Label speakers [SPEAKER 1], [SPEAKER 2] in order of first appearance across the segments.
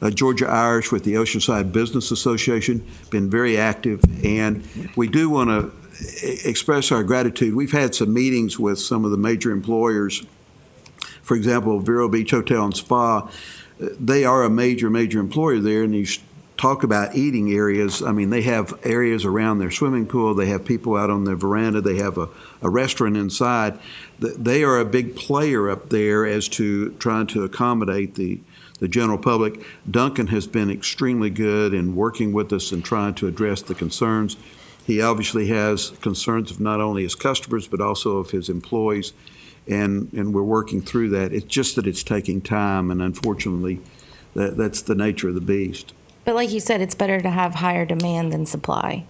[SPEAKER 1] uh, Georgia Irish with the Oceanside Business Association, been very active. And we do want to e-, express our gratitude. We've had some meetings with some of the major employers. For example, Vero Beach Hotel and Spa, uh, they are a major, major employer there. And you s- talk about eating areas. I mean, they have areas around their swimming pool. They have people out on their veranda. They have a, a restaurant inside. Th- They are a big player up there as to trying to accommodate the, the general public. Duncan has been extremely good in working with us and trying to address the concerns. He obviously has concerns of not only his customers, but also of his employees, and, and we're working through that. It's just that it's taking time, and unfortunately, that, that's the nature of the beast.
[SPEAKER 2] But like you said, it's better to have higher demand than supply.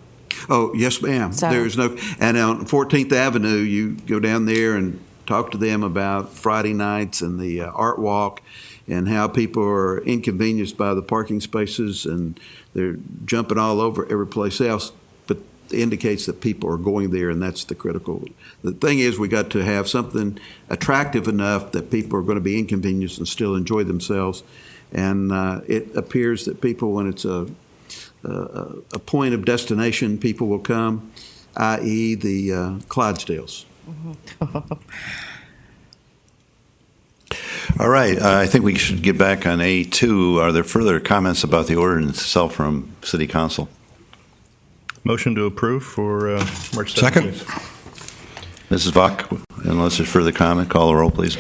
[SPEAKER 1] Oh, yes, ma'am.
[SPEAKER 2] So-
[SPEAKER 1] There's no, and on 14th Avenue, you go down there and talk to them about Friday nights and the uh, art walk and how people are inconvenienced by the parking spaces and they're jumping all over every place else. But it indicates that people are going there and that's the critical. The thing is, we got to have something attractive enough that people are going to be inconvenienced and still enjoy themselves. And uh, it appears that people, when it's a uh, a point of destination people will come, i.e., the uh, Clydesdales.
[SPEAKER 3] All right, uh, I think we should get back on A2. Are there further comments about the ordinance itself from City Council?
[SPEAKER 4] Motion to approve for uh, March 17th.
[SPEAKER 5] Second.
[SPEAKER 3] Mrs. Vok, unless there's further comment, call the roll, please.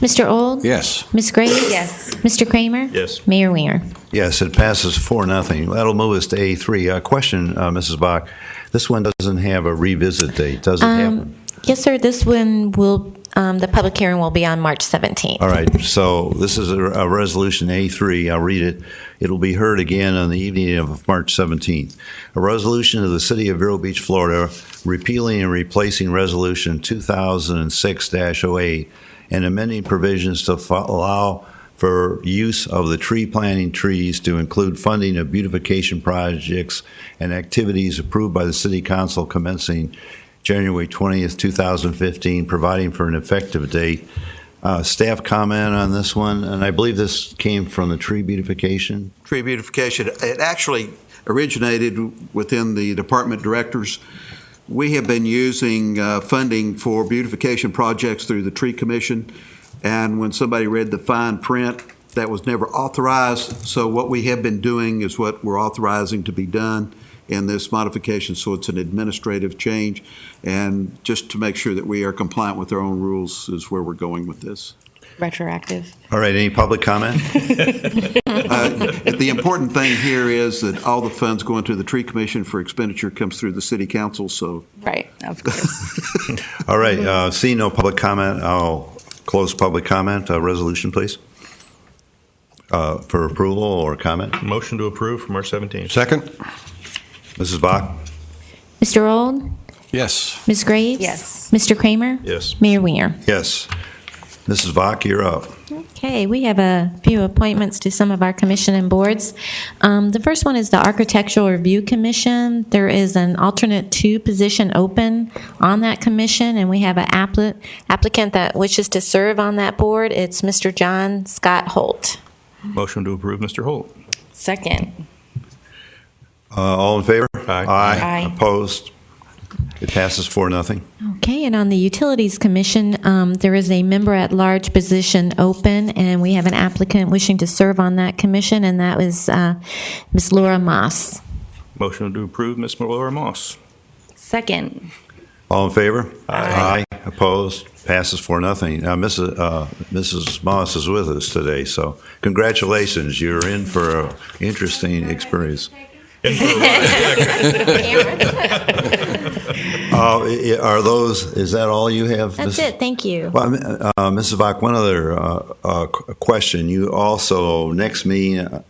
[SPEAKER 6] Mr. Old?
[SPEAKER 5] Yes.
[SPEAKER 6] Ms. Graves?
[SPEAKER 2] Yes.
[SPEAKER 6] Mr. Kramer?
[SPEAKER 4] Yes.
[SPEAKER 6] Mayor Wiener.
[SPEAKER 3] Yes, it passes four, nothing. That'll move us to A3. Uh question, uh, Mrs. Vok, this one doesn't have a revisit date, does it have?
[SPEAKER 6] Um, yes, sir. This one will, um, the public hearing will be on March 17th.
[SPEAKER 3] All right, so this is a a resolution A3, I'll read it. It'll be heard again on the evening of March 17th. A resolution of the City of Vero Beach, Florida, repealing and replacing Resolution 2006-08 and amending provisions to fo- allow for use of the tree planting trees to include funding of beautification projects and activities approved by the City Council commencing January 20th, 2015, providing for an effective date uh, Staff comment on this one, and I believe this came from the tree beautification.
[SPEAKER 1] Tree beautification, it actually originated within the department directors. We have been using uh, funding for beautification projects through the Tree Commission, and when somebody read the fine print, that was never authorized. So what we have been doing is what we're authorizing to be done in this modification, so it's an administrative change. And just to make sure that we are compliant with our own rules is where we're going with this.
[SPEAKER 2] Retroactive.
[SPEAKER 3] All right, any public comment?
[SPEAKER 1] Uh, The important thing here is that all the funds going to the tree commission for expenditure comes through the city council, so.
[SPEAKER 2] Right, of course.
[SPEAKER 3] All right, uh, seeing no public comment, I'll close public comment. Uh, Resolution, please, Uh, for approval or comment.
[SPEAKER 4] Motion to approve for March 17th.
[SPEAKER 5] Second?
[SPEAKER 3] Mrs. Bach?
[SPEAKER 6] Mr. Old?
[SPEAKER 5] Yes.
[SPEAKER 6] Ms. Graves?
[SPEAKER 2] Yes.
[SPEAKER 6] Mr. Kramer?
[SPEAKER 4] Yes.
[SPEAKER 6] Mayor Wiener.
[SPEAKER 3] Yes. Mrs. Bach, you're up.
[SPEAKER 6] Okay, we have a few appointments to some of our commission and boards. Um, the first one is the Architectural Review Commission. There is an alternate two position open on that commission, and we have an appli- applicant that wishes to serve on that board. It's Mr. John Scott Holt.
[SPEAKER 4] Motion to approve, Mr. Holt.
[SPEAKER 2] Second.
[SPEAKER 3] Uh, All in favor?
[SPEAKER 4] Aye.
[SPEAKER 2] Aye.
[SPEAKER 3] Opposed? It passes four, nothing.
[SPEAKER 6] Okay, and on the Utilities Commission, um, there is a member-at-large position open, and we have an applicant wishing to serve on that commission, and that was uh, Ms. Laura Moss.
[SPEAKER 4] Motion to approve, Ms. Laura Moss.
[SPEAKER 2] Second.
[SPEAKER 3] All in favor? Aye. Opposed? Passes for nothing. Now, Mrs. uh, Mrs. Moss is with us today, so congratulations. You're in for an interesting experience. Uh, i- i- Are those, is that all you have?
[SPEAKER 6] That's
[SPEAKER 3] Mrs.?
[SPEAKER 6] it, thank you.
[SPEAKER 3] Well, I mean, uh, Mrs. Vach, one other uh, uh, qu- question. You also, next meeting, uh,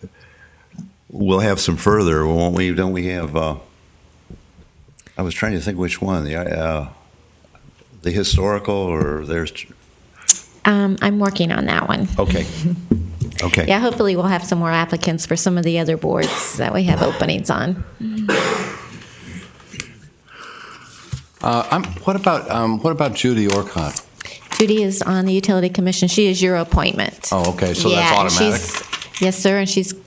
[SPEAKER 3] we'll have some further, won't we? Don't we have, uh, I was trying to think which one, the, uh, the historical or there's,
[SPEAKER 6] Um, I'm working on that one.
[SPEAKER 3] okay. Okay.
[SPEAKER 6] Yeah, hopefully we'll have some more applicants for some of the other boards that we have openings on.
[SPEAKER 5] Uh, I'm, what about, um, what about Judy Orcott?
[SPEAKER 6] Judy is on the Utility Commission, she is your appointment.
[SPEAKER 5] Oh, okay, so that's
[SPEAKER 6] Yeah, and
[SPEAKER 5] automatic.
[SPEAKER 6] she's- Yes, sir, and she's